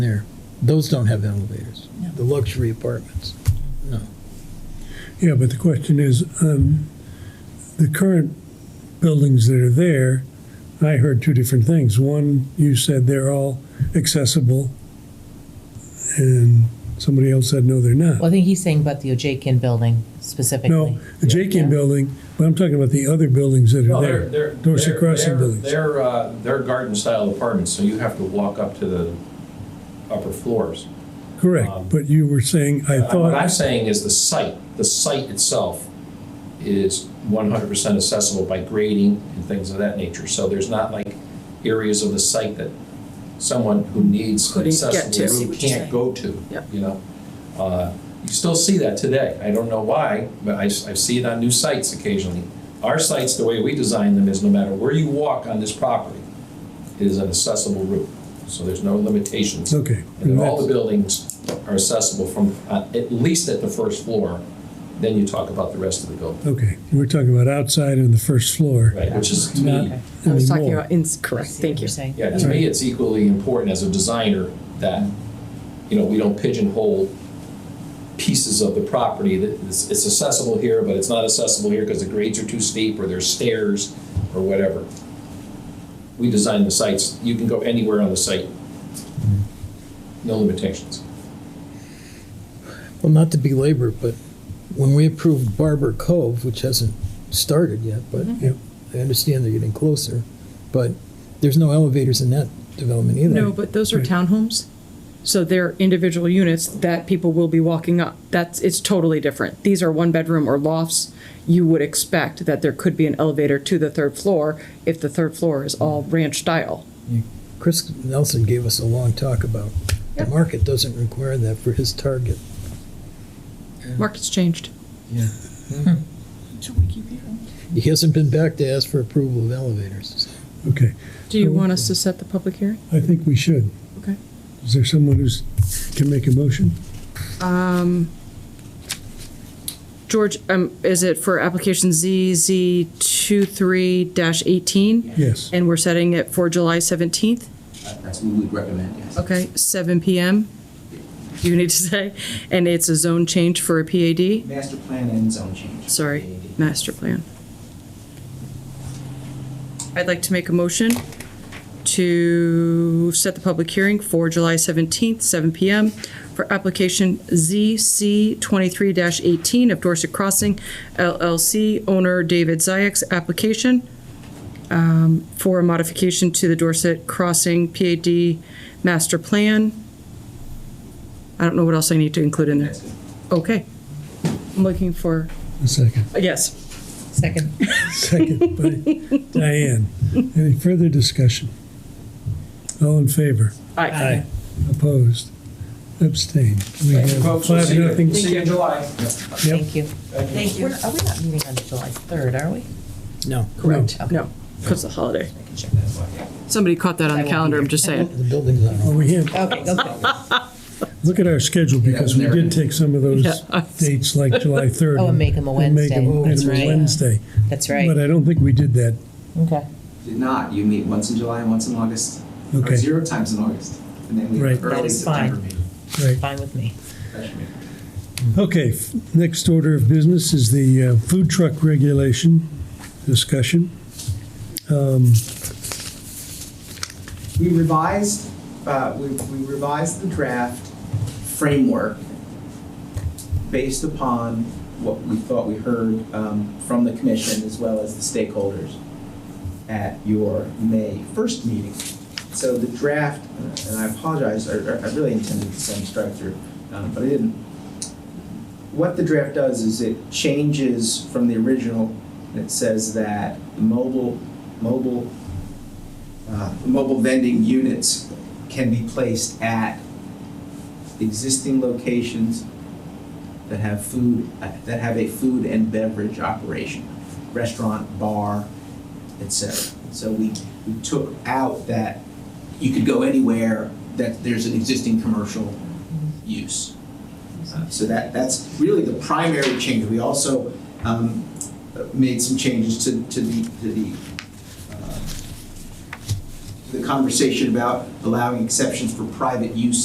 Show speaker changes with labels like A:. A: there. Those don't have elevators, the luxury apartments.
B: Yeah, but the question is, um, the current buildings that are there, I heard two different things. One, you said they're all accessible, and somebody else said, no, they're
C: Well,
B: not.
C: I think he's saying about the Ojekian building specifically.
B: No, the Jakian building, but I'm talking about the other buildings that
D: No,
B: are
D: they're,
B: there.
D: they're.
B: Dorset
D: they're-
B: Crossing
D: they're-
B: buildings.
D: They're, uh, they're garden-style apartments, so you have to walk up to the upper floors.
B: Correct, but you were saying, I
D: um, Uh, What I'm
B: thought,
D: saying is the site, the site itself is one hundred percent accessible by grading and things of that nature. So there's not like areas of the site that someone who needs an
E: Couldn't get to.
D: accessible
E: See
D: route
E: what you're
D: can't
E: saying.
D: go to,
E: Yep.
D: you know? Uh, You still see that today. I don't know why, but I, s- I see it on new sites occasionally. Our sites, the way we design them is no matter where you walk on this property, it is an accessible route. So there's no limitations.
B: okay.
D: And
B: and
D: then all the
B: that's-
D: buildings are accessible from, uh, at least at the first floor, then you talk about the rest of the building.
B: Okay, we're talking about outside and the first floor.
D: Right, which is, to
B: Not
D: me,
E: I was talking
B: anymore.
E: about, ins- correct, thank you.
C: Saying.
D: yeah, to me, it's equally important as a designer that, you know, we don't pigeonhole pieces of the property that it's it's accessible here, but it's not accessible here because the grades are too steep or there's stairs or whatever. We design the sites, you can go anywhere on the site. No limitations.
A: Well, not to belabor, but when we approved Barber Cove, which hasn't started yet, but
E: Mm-hmm.
B: Yep.
A: I understand they're getting closer, but there's no elevators in that development either.
E: No, but those are townhomes, so they're individual units that people will be walking up. That's, it's totally different. These are one-bedroom or lofts. You would expect that there could be an elevator to the third floor if the third floor is all ranch style.
A: Chris Nelson gave us a long talk about the market doesn't require that for his target.
E: Market's changed.
A: He hasn't been back to ask for approval of elevators.
B: Okay,
E: Do you want us to set the public hearing?
B: I think we should.
E: Okay.
B: Is there someone who's, can make a motion?
E: George, um, is it for application ZZ 23 eighteen?
B: Yes.
E: And we're setting it for July seventeenth?
F: That's what we'd recommend, yes.
E: Okay, seven PM, you need to say, and it's a zone change for a PAD?
F: Master plan and zone change.
E: Sorry, master plan. I'd like to make a motion to set the public hearing for July seventeenth, seven PM, for application ZC twenty-three eighteen of Dorset Crossing LLC, owner David Zayek's application um, for a modification to the Dorset Crossing PAD master plan. I don't know what else I need to include in there.
F: That's it.
E: Okay. I'm looking for,
B: A second.
E: yes.
C: Second.
B: Second by Diane. Any further discussion? All in favor?
E: Aye.
B: Opposed? Abstained? We have
D: Folks, we'll
B: five,
D: see you-
B: nothing.
D: See you in July.
C: Thank you.
D: Thank
C: We're- Are we not meeting on July 3rd, are we?
A: No.
B: Correct.
E: No, because of the holiday.
C: I can check that.
E: Somebody caught that on the calendar, I'm just saying.
A: The building's on.
B: Well, Oh, we have,
C: Okay, okay.
B: look at our schedule because we did take some of those
E: Yeah.
B: dates like July 3rd.
C: Oh, and make 'em a
B: and make 'em-
C: Wednesday. That's
B: make 'em a
C: right.
B: Wednesday.
C: That's
B: But
C: right.
B: I don't think we did that.
C: Okay.
F: Did not, you meet once in July and once in August. or
B: Okay.
F: Zero times in August, and then we
B: Right.
F: have
B: That
F: early
C: is fine.
F: September meeting.
B: Right.
C: Fine with me.
F: Special meeting.
B: Okay, f- next order of business is the uh, food truck regulation discussion.
F: We revised, uh, we we revised the draft framework based upon what we thought we heard um, from the commission as well as the stakeholders at your May 1st meeting. So the draft, uh, and I apologize, I I really intended to send strike through, um, but I didn't. What the draft does is it changes from the original, it says that mobile, mobile uh, mobile vending units can be placed at existing locations that have food, uh, that have a food and beverage operation, restaurant, bar, etc. So we, we took out that you could go anywhere that there's an existing commercial use. Uh, So that, that's really the primary change. We also um, made some changes to, to the, to the uh, the conversation about allowing exceptions for private use